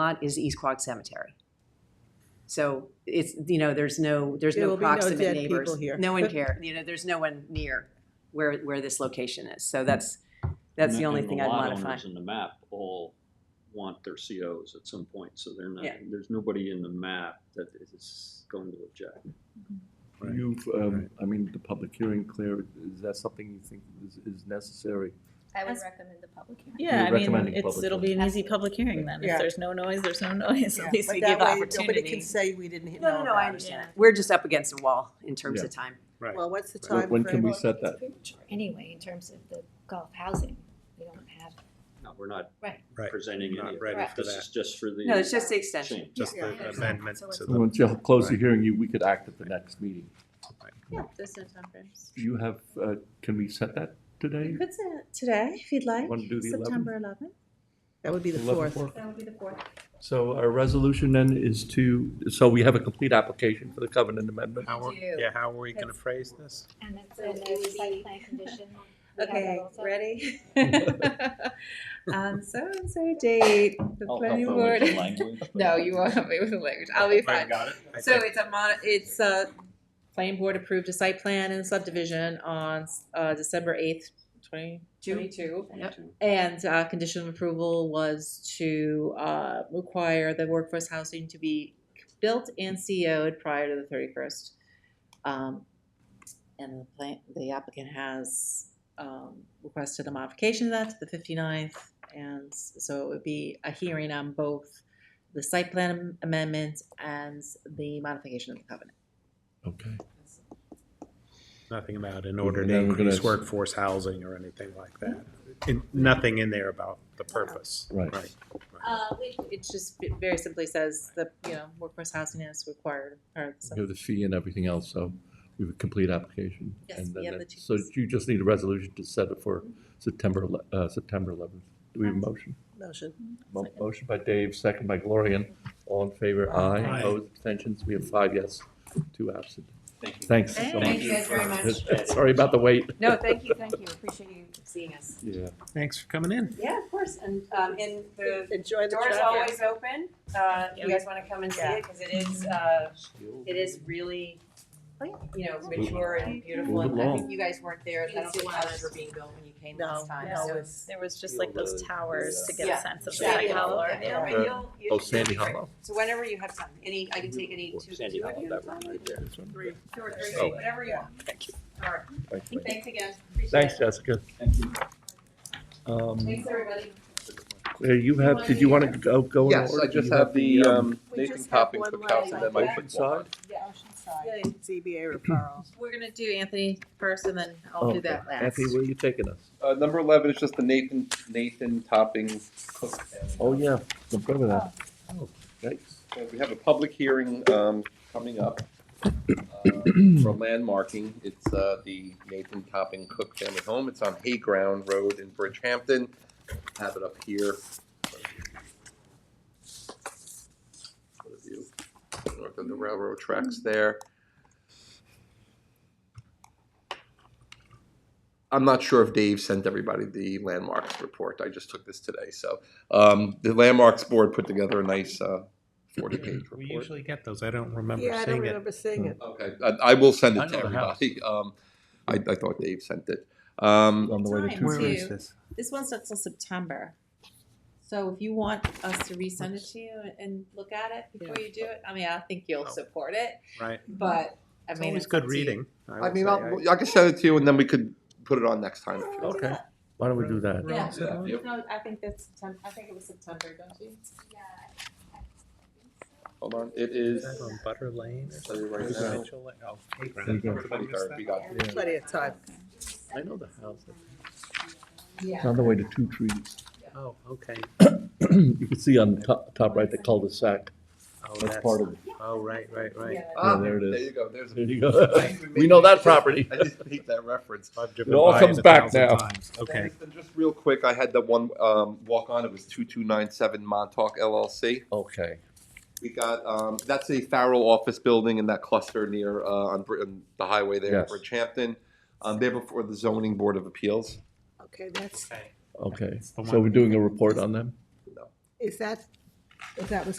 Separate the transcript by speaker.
Speaker 1: lot is East Quogue Cemetery. So it's, you know, there's no, there's
Speaker 2: There
Speaker 1: no
Speaker 2: will be no
Speaker 1: proximate
Speaker 2: dead people
Speaker 1: neighbors.
Speaker 2: here.
Speaker 1: No one care, you know, there's no one near where, where this location is. So that's, that's the
Speaker 3: And-
Speaker 1: only
Speaker 3: and
Speaker 1: thing I'd
Speaker 3: The lot
Speaker 1: modify.
Speaker 3: owners in the map all want their COs at some point, so they're not,
Speaker 1: Yeah.
Speaker 3: there's nobody in the map that is going to object.
Speaker 4: Right.
Speaker 5: You've, um, I mean, the public hearing, Claire, is that something you think is, is necessary?
Speaker 6: I would
Speaker 7: As-
Speaker 6: recommend the public hearing.
Speaker 2: Yeah,
Speaker 5: We're
Speaker 2: I mean,
Speaker 5: recommending
Speaker 2: it's,
Speaker 5: public
Speaker 2: it'll be an easy public hearing then.
Speaker 4: Yeah.
Speaker 7: If there's no noise, there's no noise.
Speaker 2: Yeah,
Speaker 7: At least
Speaker 2: but
Speaker 7: we
Speaker 2: that
Speaker 7: give
Speaker 2: way Nobody can
Speaker 7: opportunity.
Speaker 2: say we didn't he-
Speaker 1: No, no,
Speaker 2: know
Speaker 1: no, I
Speaker 2: about it.
Speaker 1: understand.
Speaker 7: understand.
Speaker 1: We're just up against a wall in terms
Speaker 5: Yeah.
Speaker 1: of time.
Speaker 4: Right.
Speaker 2: Well, what's the
Speaker 5: When-
Speaker 2: time
Speaker 5: When can we
Speaker 2: frame?
Speaker 5: set that?
Speaker 6: Premature Anyway, in terms of the golf housing, we don't have.
Speaker 3: No, we're not
Speaker 6: Right.
Speaker 4: Right.
Speaker 3: presenting
Speaker 4: Not
Speaker 3: any of
Speaker 4: ready
Speaker 3: that.
Speaker 4: for
Speaker 3: This is
Speaker 4: that.
Speaker 3: just for the.
Speaker 1: No, it's just the extension.
Speaker 3: change.
Speaker 4: Just
Speaker 6: Yeah.
Speaker 4: the
Speaker 6: Yeah, exactly.
Speaker 4: amendment
Speaker 6: So it's-
Speaker 4: to the,
Speaker 5: Once you close the
Speaker 4: Right.
Speaker 5: hearing, you, we could act at the next meeting.
Speaker 6: Yeah, those are numbers.
Speaker 5: Do you have, uh, can we set that today?
Speaker 7: You could say it today, if you'd like,
Speaker 5: Wanna do the 11th?
Speaker 7: September eleventh.
Speaker 2: That would be the
Speaker 5: 11th
Speaker 2: fourth.
Speaker 5: work?
Speaker 7: That would be the fourth.
Speaker 5: So our resolution then is to, so we have a complete application for the covenant amendment.
Speaker 4: how, are-
Speaker 6: Do.
Speaker 4: yeah, how are we gonna phrase this?
Speaker 6: And it's
Speaker 7: So it
Speaker 6: a
Speaker 7: would
Speaker 6: site
Speaker 7: be-
Speaker 6: plan condition. We have that
Speaker 7: Okay,
Speaker 6: also.
Speaker 7: ready? Um, so and so date, the
Speaker 3: I'll help
Speaker 7: planning
Speaker 3: her with
Speaker 7: board.
Speaker 3: the language, but-
Speaker 7: No, you won't help me with the language. I'll be
Speaker 4: Right,
Speaker 7: fine.
Speaker 4: got it? I
Speaker 7: So
Speaker 4: think.
Speaker 7: it's a mon, it's a, planning board approved a site plan and subdivision on, uh, December eighth, twenty twenty-two.
Speaker 1: Yep.
Speaker 7: And uh, condition of approval was to uh, require the workforce housing to be built and CO'd prior to the thirty-first. Um, and the plan, the applicant has um, requested a modification of that to the 59th, and so it would be a hearing on both the site plan amendment and the modification of the covenant.
Speaker 5: Okay.
Speaker 4: Nothing about in order to
Speaker 5: Then we're gonna
Speaker 4: increase
Speaker 5: s-
Speaker 4: workforce housing or anything like that. In- Nothing in there about the purpose.
Speaker 5: Right.
Speaker 4: Right.
Speaker 7: Uh, it, it just it very simply says that you know workforce housing is required. Or
Speaker 5: We have the fee and everything else, so we have a complete application.
Speaker 7: Yes,
Speaker 5: And
Speaker 7: we
Speaker 5: then
Speaker 7: have
Speaker 5: that-
Speaker 7: the two
Speaker 5: So
Speaker 7: pieces.
Speaker 5: you just need a resolution to set it for September, ele- uh, September eleventh. Do we have a motion?
Speaker 2: Motion.
Speaker 5: Mo- Motion by Dave, second by Gloria. All in favor?
Speaker 4: Aye.
Speaker 5: Aye. Opposed, abstentions? We have five yes, two absent.
Speaker 3: Thank you.
Speaker 5: Thanks. so
Speaker 3: Thank
Speaker 5: much.
Speaker 3: you guys very
Speaker 6: much.
Speaker 5: Sorry about the wait.
Speaker 1: No, thank you, thank you. Appreciate you seeing us.
Speaker 5: Yeah.
Speaker 4: Thanks for coming in.
Speaker 1: Yeah, of course. And, um, and the
Speaker 2: Enjoy the
Speaker 1: door's
Speaker 2: traffic.
Speaker 1: always open. Uh, you guys want to come and see it because it is, uh, it is really, you know, mature and beautiful,
Speaker 5: Move
Speaker 1: and I think
Speaker 5: along.
Speaker 1: you guys weren't there, I don't
Speaker 6: Yes, it
Speaker 1: think houses
Speaker 6: was.
Speaker 1: were being built when you came
Speaker 2: No,
Speaker 1: last time,
Speaker 2: no,
Speaker 1: so.
Speaker 2: it's-
Speaker 7: There was
Speaker 3: just like those
Speaker 7: towers
Speaker 1: to get a Yeah.
Speaker 7: sense
Speaker 1: Yeah,
Speaker 3: Sandy
Speaker 1: yeah,
Speaker 3: Hollow.
Speaker 1: yeah, yeah,
Speaker 5: Yeah.
Speaker 1: but you'll- you-
Speaker 5: Oh, Sandy Hollow.
Speaker 1: So whenever you have time, any, I can take any two,
Speaker 3: Sandy
Speaker 1: two of
Speaker 3: Hollow,
Speaker 1: you,
Speaker 3: that one right there.
Speaker 5: This one?
Speaker 2: Three.
Speaker 1: two or three,
Speaker 5: Oh.
Speaker 1: whatever you want. Thank you. All right,
Speaker 5: Thank you.
Speaker 1: thanks again, appreciate
Speaker 5: Thanks,
Speaker 1: it.
Speaker 5: Jessica.
Speaker 3: Thank you.
Speaker 5: Um,
Speaker 1: Thanks, everybody.
Speaker 5: Claire, you have, did you want to go, go in
Speaker 8: Yes,
Speaker 5: order?
Speaker 8: I
Speaker 5: Do
Speaker 8: just
Speaker 5: you
Speaker 8: have the um,
Speaker 2: We
Speaker 8: Nathan
Speaker 2: just have
Speaker 8: Topping
Speaker 2: one
Speaker 8: cookouts and
Speaker 2: line.
Speaker 8: then my football.
Speaker 1: Yeah.
Speaker 2: Yay, ZBA referral.
Speaker 7: We're gonna do Anthony first, and then I'll
Speaker 5: Oh,
Speaker 7: do that last.
Speaker 5: Effie, where are you taking us?
Speaker 8: Uh, number eleven is just the Nathan, Nathan Topping cook. and-
Speaker 5: Oh, yeah, I'm good with that. Oh, Yikes.
Speaker 8: So We have a public hearing, um, coming up, uh, for landmarking. It's, uh, the Nathan Topping Cook Family Home. It's on Hay Ground Road in Bridgehampton. Have it up here. One of you, north of the railroad tracks there. I'm not sure if Dave sent everybody the landmarks report. I just took this today, so, um, the landmarks board put together a nice, uh, forty-page
Speaker 4: We
Speaker 8: report.
Speaker 4: usually get those. I don't remember
Speaker 2: Yeah, I don't
Speaker 4: seeing it.
Speaker 2: remember seeing it.
Speaker 8: Okay, I, I will send
Speaker 4: I
Speaker 8: it to
Speaker 4: know the house.
Speaker 8: everybody. Um, I, I thought Dave sent it. Um,
Speaker 5: On the way to
Speaker 7: Time
Speaker 5: two.
Speaker 7: Where is
Speaker 4: this?
Speaker 7: This one's not till September. So if you want us to resend it to you and look at it before you do it, I mean, I think you'll
Speaker 5: Oh.
Speaker 7: support it,
Speaker 4: Right.
Speaker 7: but I
Speaker 4: It's
Speaker 7: mean.
Speaker 4: always
Speaker 7: it's up
Speaker 4: good
Speaker 7: to you.
Speaker 4: reading.
Speaker 8: I
Speaker 4: would
Speaker 8: mean,
Speaker 4: say.
Speaker 8: I'll, I can send it to you and then we could put it on next time. if you want.
Speaker 5: Okay, why don't we do that?
Speaker 4: We're all set
Speaker 8: Yeah.
Speaker 4: on it?
Speaker 8: Yep.
Speaker 7: No, I think that's September, I think it was September, don't you?
Speaker 6: Yeah, I- I think so.
Speaker 8: Hold on, it is.
Speaker 4: Is that on Butter Lane or
Speaker 8: Tell you
Speaker 4: something?
Speaker 8: right
Speaker 4: Is
Speaker 8: now.
Speaker 4: it Mitchell Lane? Oh, hey,
Speaker 5: There you
Speaker 4: Grant.
Speaker 5: go.
Speaker 4: I missed that.
Speaker 8: We got-
Speaker 5: Yeah.
Speaker 2: Plenty of time.
Speaker 5: I know the house.
Speaker 7: Yeah.
Speaker 5: It's on the way to two trees.
Speaker 4: Oh, okay.
Speaker 5: You can see on top, top right, the cul-de-sac.
Speaker 4: Oh,
Speaker 5: That's part of it.
Speaker 4: Oh, right, right, right.
Speaker 8: Ah,
Speaker 5: there it is.
Speaker 8: There you go, there's.
Speaker 5: There
Speaker 8: a-
Speaker 5: you go. We know that property.
Speaker 8: I just hate that reference.
Speaker 4: I've
Speaker 5: It all
Speaker 4: driven by
Speaker 5: comes
Speaker 4: a
Speaker 5: back
Speaker 4: thousand
Speaker 5: now.
Speaker 4: times. Okay.
Speaker 8: And just real quick, I had the one, um, walk on, it was two-two-nine-seven Montauk LLC.
Speaker 5: Okay.
Speaker 8: We got, um, that's a Farrell office building in that cluster near, uh, on, Br- on the highway there, in
Speaker 5: Yes.
Speaker 8: Bridgehampton. Um, they're before the zoning board of appeals.
Speaker 2: Okay, that's,
Speaker 5: Okay,
Speaker 4: the
Speaker 5: so
Speaker 4: one-
Speaker 5: we're doing a report on them?
Speaker 2: is that If that was